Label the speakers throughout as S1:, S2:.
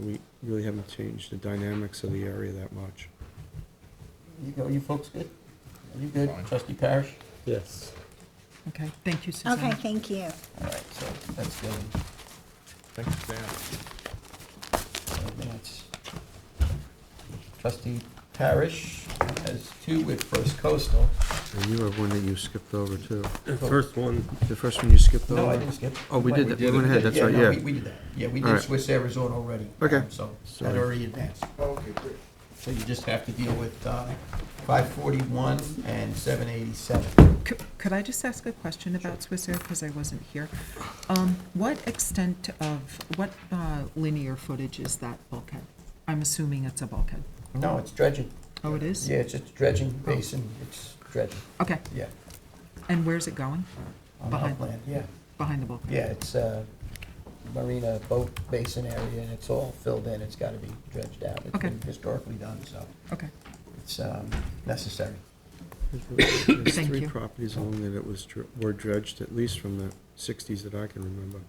S1: We really haven't changed the dynamics of the area that much.
S2: You go, you folks good? Are you good?
S3: Fine.
S2: Trustee Parrish?
S1: Yes.
S4: Okay, thank you, Suzanne.
S5: Okay, thank you.
S2: All right, so that's good.
S3: Thanks, Dan.
S2: So that's- Trustee Parrish has two with First Coastal.
S1: And you have one that you skipped over too.
S6: The first one,
S1: The first one you skipped over?
S2: No, I didn't skip.
S1: Oh, we did that. We went ahead. That's right,
S2: no,
S1: yeah.
S2: we- We did that, yeah, we
S1: All
S2: did
S1: right.
S2: Swiss Air Resort already.
S1: Okay.
S2: um, So that
S1: Sorry.
S2: already advanced. So you just have to deal with uh, 541 and 787.
S4: C- Could I just ask a question about Swiss Air, because I wasn't here? Um, What extent of, what uh, linear footage is that bulkhead? I'm assuming it's a bulkhead.
S2: No, it's dredging.
S4: Oh, it is?
S2: Yeah, it's just dredging basin, it's dredging,
S4: Okay,
S2: yeah.
S4: and where's it going?
S2: On
S4: Behind.
S2: upland, yeah.
S4: Behind the bulkhead?
S2: Yeah, it's a marina boat basin area, and it's all filled in, it's gotta be dredged out. It's
S4: Okay.
S2: been historically done, so
S4: Okay,
S2: it's um, necessary.
S1: There's
S4: Thank
S1: three
S4: you.
S1: properties along there that was, dr- were dredged, at least from the sixties that I can remember.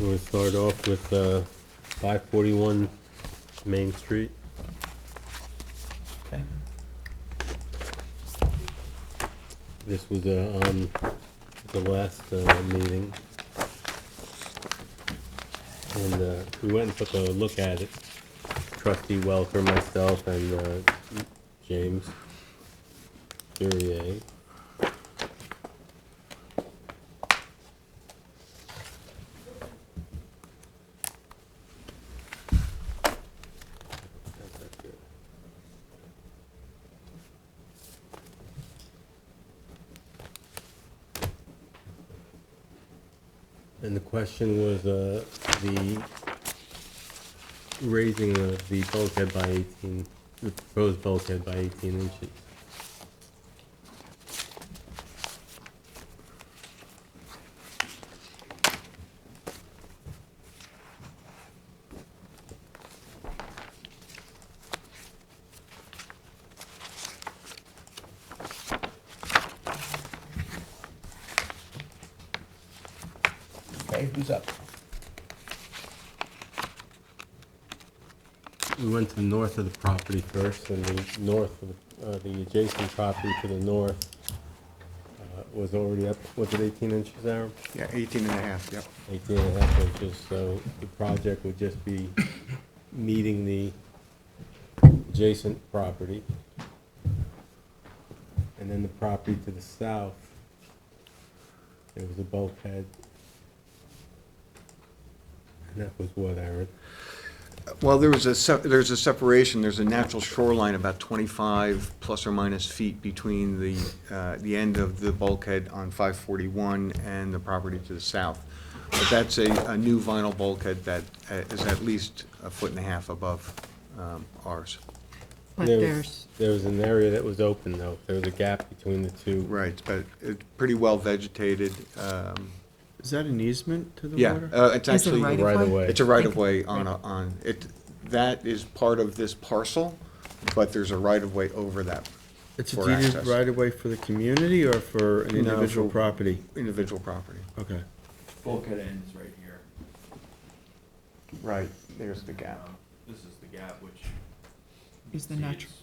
S6: we'll start off with, uh, five forty-one Main Street.
S2: Okay.
S6: This was, uh, um, the last, uh, meeting. And, uh, we went and took a look at it, trustee Welker, myself, and, uh, James Durier. And the question was, uh, the raising of the bulkhead by eighteen, the proposed bulkhead by eighteen inches.
S2: Okay, who's up?
S6: We went to the north of the property first, and the north, of the- uh, the adjacent property to the north uh, was already up, was it eighteen inches, Aaron?
S3: Yeah, eighteen and a half, yep.
S6: Eighteen and a half inches, so the project would just be meeting the adjacent property. And then the property to the south, there was a bulkhead. And that was what, Aaron?
S3: Well, there was a, sep- there's a separation, there's a natural shoreline about 25 plus or minus feet between the, uh, the end of the bulkhead on 541 and the property to the south. But that's a, a new vinyl bulkhead that uh, is at least a foot and a half above um, ours.
S4: but
S6: There was-
S4: there's,
S6: There was an area that was open, though. There was a gap between the two.
S3: Right, but it's pretty well vegetated. um,
S1: Is that an easement to the
S3: Yeah,
S1: water?
S3: uh, it's
S4: is it
S3: actually.
S4: right
S6: right
S4: of
S6: of
S4: way?
S6: way.
S3: It's a right-of-way on, a- on, it, that is part of this parcel, but there's a right-of-way over that
S1: It's a
S3: for
S1: deeded
S3: access.
S1: right-of-way for the community or for an
S3: No,
S1: individual
S3: for-
S1: property?
S3: individual property.
S1: Okay.
S7: bulkhead ends right here.
S3: Right, there's the gap.
S7: Um, This is the gap, which. you
S4: Is the
S7: can see
S4: natu-
S7: it's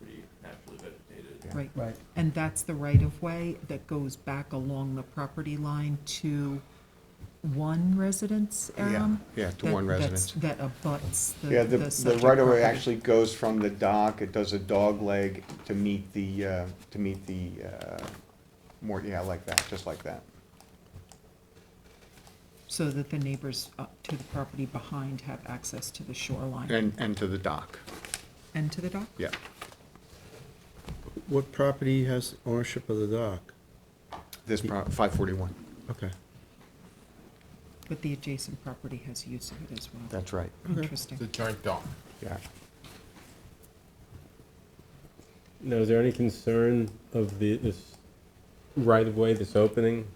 S7: Pretty naturally vegetated.
S3: Yeah.
S4: right,
S2: Right.
S4: and that's the right-of-way that goes back along the property line to one residence,
S3: Yeah,
S4: Aram?
S3: yeah, to
S4: That-
S3: one
S4: that's-
S3: residence.
S4: That abuts the.
S3: Yeah, the, the
S4: subject
S3: right-of-way
S4: property.
S3: actually goes from the dock, it does a dog leg to meet the, uh, to meet the, uh, more, yeah, like that, just like that.
S4: So that the neighbors up to the property behind have access to the shoreline
S3: And, and to the dock,
S4: and to the dock?
S3: yeah.
S1: What property has ownership of the dock?
S3: This pro, five forty-one,
S1: Okay.
S4: But the adjacent property has use of it as well.
S3: that's right,
S4: Interesting.
S3: giant dock. Yeah.
S6: Now, is there any concern of the, this right-of-way, this opening